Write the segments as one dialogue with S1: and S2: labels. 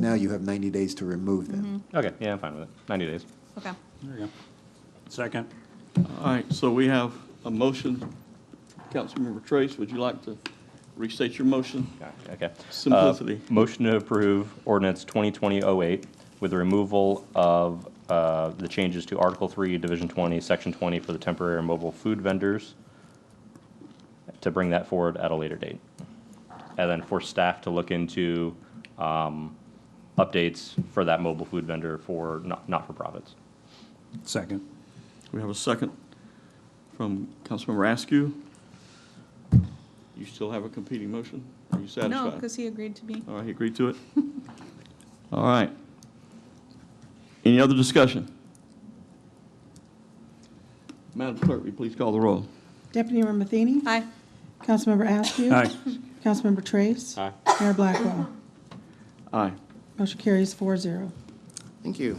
S1: Now you have 90 days to remove them.
S2: Okay, yeah, I'm fine with it. 90 days.
S3: Okay.
S4: There you go. Second.
S5: All right, so we have a motion. Councilmember Trace, would you like to restate your motion?
S2: Okay. Uh,
S5: Simplicity.
S2: Motion to approve ordinance 2020-08 with the removal of uh, the changes to Article 3, Division 20, Section 20 for the temporary and mobile food vendors, to bring that forward at a later date. And then for staff to look into um, updates for that mobile food vendor for not- not-for-profits.
S4: Second.
S5: We have a second from Councilmember Askew. You still have a competing motion? Are you
S3: No,
S5: satisfied?
S3: because he agreed to be.
S5: All right, he agreed to it? All right. Any other discussion? Madam Clerk, will you please call the roll?
S6: Deputy Mayor Matheny?
S3: Aye.
S6: Councilmember Askew?
S4: Aye.
S6: Councilmember Trace?
S2: Aye.
S6: Mayor Blackwell?
S5: Aye.
S6: Motion carries four zero.
S7: Thank you.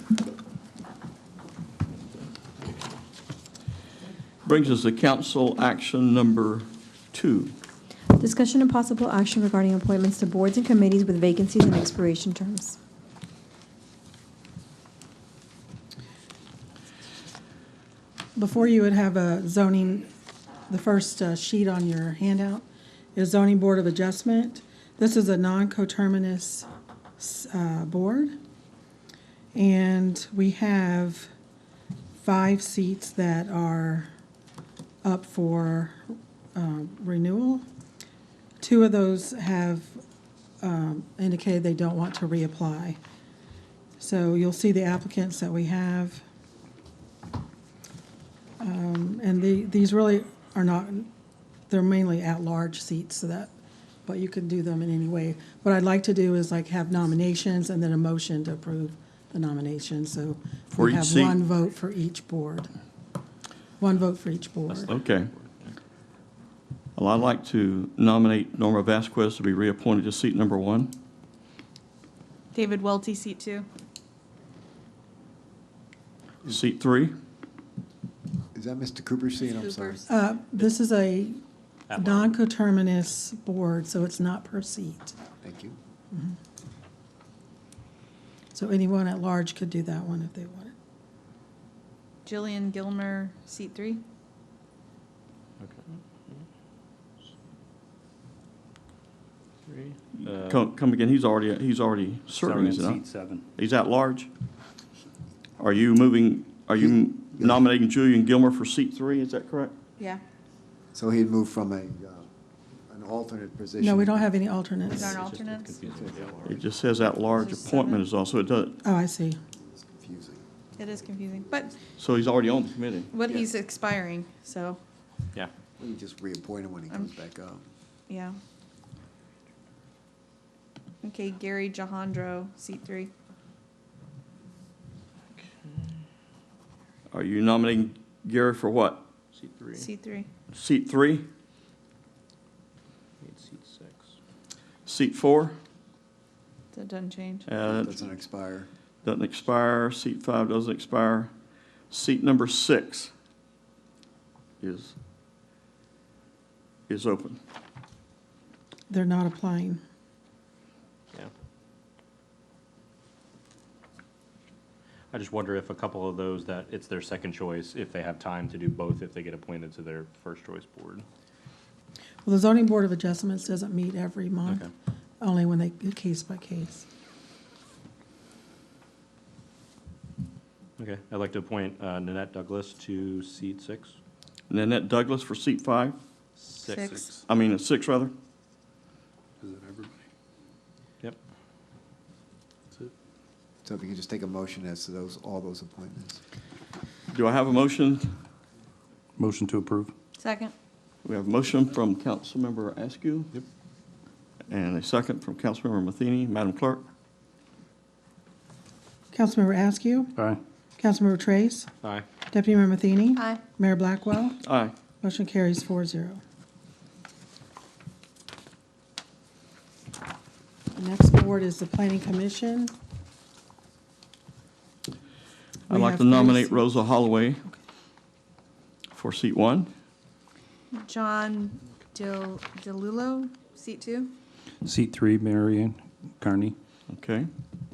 S5: Brings us to council action number two.
S8: Discussion and possible action regarding appointments to boards and committees with vacancies and expiration terms.
S6: Before you would have a zoning, the first uh, sheet on your handout is zoning board of adjustment. This is a non-coterminous uh, board. And we have five seats that are up for uh, renewal. Two of those have um, indicated they don't want to reapply. So you'll see the applicants that we have. Um, And the, these really are not, they're mainly at-large seats, so that, but you can do them in any way. What I'd like to do is like have nominations and then a motion to approve the nomination, so
S5: For
S6: we
S5: each
S6: have
S5: seat?
S6: one vote for each board. One vote for each board.
S5: Okay. Well, I'd like to nominate Norma Vasquez to be reappointed to seat number one.
S3: David Welty, seat two.
S5: Seat three,
S6: Mm-hmm.
S1: Is that Mr. Cooper's seat? I'm sorry.
S3: Cooper's.
S6: Uh, This is a non-coterminous board, so it's not per seat.
S1: Thank you.
S6: So anyone at large could do that one if they wanted.
S3: Jillian Gilmer, seat three.
S5: come, come again, he's already, he's already serving, is it
S4: Seven,
S5: not?
S4: Uh, Seat seven.
S5: He's at large? Are you moving, are you nominating Julian Gilmer for seat three, is that correct?
S3: Yeah.
S1: So he'd move from a, uh, an alternate position.
S6: No, we don't have any alternates.
S3: These aren't alternates.
S5: It just says at-large
S3: So seven.
S5: appointment is also, it does,
S6: Oh, I see.
S1: It's confusing.
S3: It is confusing, but
S5: so he's already on the committee.
S3: what he's expiring, so,
S2: Yeah.
S1: We can just reappoint him when he
S6: Um,
S1: comes back up.
S3: yeah. Okay, Gary Jahandro, seat three.
S5: Are you nominating Gary for what? Seat three.
S3: Seat three.
S5: Seat three,
S2: Seat six.
S5: seat four,
S3: That doesn't change.
S5: uh,
S1: Doesn't expire.
S5: Doesn't expire. Seat five doesn't expire. Seat number six is, is open.
S6: They're not applying.
S2: Yeah. I just wonder if a couple of those that it's their second choice, if they have time to do both, if they get appointed to their first choice board.
S6: Well, the zoning board of adjustments doesn't meet every month,
S2: Okay.
S6: only when they, case by case.
S2: Okay, I'd like to appoint uh, Nanette Douglas to seat six.
S5: Nanette Douglas for seat five,
S3: Six.
S5: I mean, uh, six rather.
S4: Is it everybody?
S2: Yep.
S1: So if you could just take a motion as to those, all those appointments.
S5: Do I have a motion?
S4: Motion to approve.
S3: Second.
S5: We have a motion from Councilmember Askew. Yep. And a second from Councilmember Matheny. Madam Clerk?
S6: Councilmember Askew,
S4: Aye.
S6: Councilmember Trace,
S2: Aye.
S6: Deputy Mayor Matheny.
S3: Aye.
S6: Mayor Blackwell,
S5: Aye.
S6: motion carries four zero. The next board is the planning commission.
S5: I'd
S6: We
S5: like
S6: have
S5: to
S6: three
S5: nominate
S6: seats.
S5: Rosa Holloway for seat one.
S3: John Del, DeLulo, seat two.
S4: Seat three, Marion Carney.
S5: Okay.